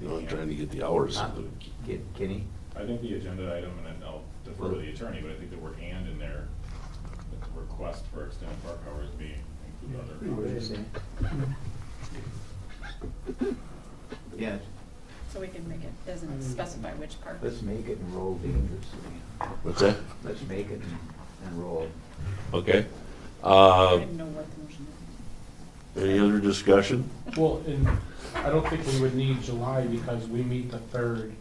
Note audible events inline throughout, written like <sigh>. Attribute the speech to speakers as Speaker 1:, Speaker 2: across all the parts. Speaker 1: you know, I'm trying to get the hours.
Speaker 2: Not Ki- Kenny?
Speaker 3: I think the agenda item, and then I'll defer to the attorney, but I think the word and in there, that the request for extended park hours being
Speaker 2: what
Speaker 3: included
Speaker 2: you're saying? Yes,
Speaker 4: So we can make it,
Speaker 5: Mm-hmm.
Speaker 4: doesn't specify which part.
Speaker 2: let's make it and roll dangerously.
Speaker 1: What's that?
Speaker 2: Let's make it and- and roll.
Speaker 1: Okay.
Speaker 4: I
Speaker 1: Uh,
Speaker 4: didn't know what the motion is.
Speaker 1: any other discussion?
Speaker 5: Well, and I don't think we would need July because we meet the third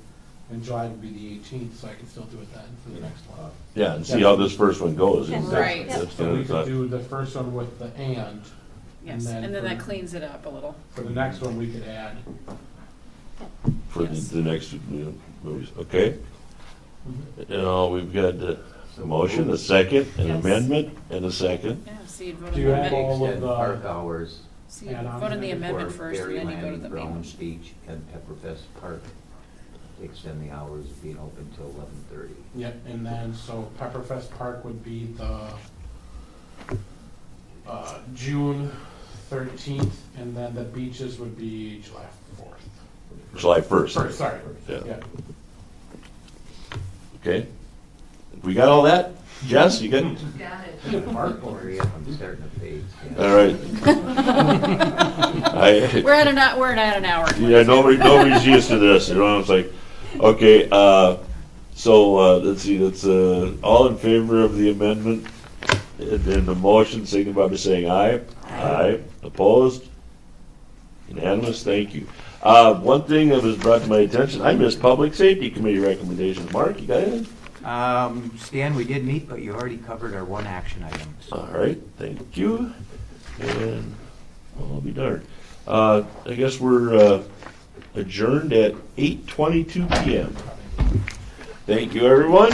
Speaker 5: and July would be the eighteenth, so I can still do it then for the next one.
Speaker 1: Yeah, and see how this first one goes. That's-
Speaker 4: Right.
Speaker 1: that's
Speaker 5: So
Speaker 1: what I
Speaker 5: we could
Speaker 1: thought.
Speaker 5: do the first one with the and,
Speaker 4: Yes,
Speaker 5: then
Speaker 4: and then that
Speaker 5: for-
Speaker 4: cleans it up a little.
Speaker 5: for the next one we could add.
Speaker 1: For the,
Speaker 4: Yes.
Speaker 1: the next uh, movies, okay?
Speaker 5: Mm-hmm.
Speaker 1: Now, we've got uh, a motion, a second, an
Speaker 4: Yes.
Speaker 1: amendment, and a second.
Speaker 4: Yeah, so you'd
Speaker 5: Do
Speaker 4: vote on
Speaker 5: you
Speaker 4: the
Speaker 5: have all-
Speaker 4: amendment.
Speaker 5: with
Speaker 2: Extend
Speaker 5: the-
Speaker 2: park hours
Speaker 4: So you
Speaker 5: add on
Speaker 4: vote on the
Speaker 5: there?
Speaker 4: amendment
Speaker 2: for
Speaker 4: first, and
Speaker 2: Berry
Speaker 4: then you go to the
Speaker 2: Landing,
Speaker 4: main.
Speaker 2: Browns Beach, and Pepperfest Park. Extend the hours of being open till eleven
Speaker 5: <laughs>
Speaker 2: thirty.
Speaker 5: Yep, and then, so Pepperfest Park would be the, uh, June thirteenth, and then the beaches would be July fourth.
Speaker 1: July first.
Speaker 5: First, sorry,
Speaker 1: Yeah.
Speaker 5: yeah.
Speaker 1: Okay? We got all that? Jess, you got?
Speaker 6: Got it.
Speaker 5: Park
Speaker 2: Hurry
Speaker 5: boards.
Speaker 2: up, I'm starting to fade. yeah.
Speaker 1: All right.
Speaker 5: <laughs>
Speaker 4: <laughs>
Speaker 1: I-
Speaker 4: We're at an, hou- we're at an hour.
Speaker 1: Yeah, nobody, nobody's
Speaker 4: <laughs>
Speaker 1: used to this, you know, it's like, okay, uh, so, uh, let's see, that's, uh, all in favor of the amendment and and the motion, signify by saying aye. Aye. Opposed? Unanimous, thank you. Uh, one thing that was brought to my attention, I missed Public Safety Committee recommendations. Mark, you got it?
Speaker 2: Um, Stan, we did meet, but you already covered our one action item. so-
Speaker 1: All right, thank you, and I'll be darned. Uh, I guess we're uh, adjourned at eight twenty-two PM. Thank you, everyone.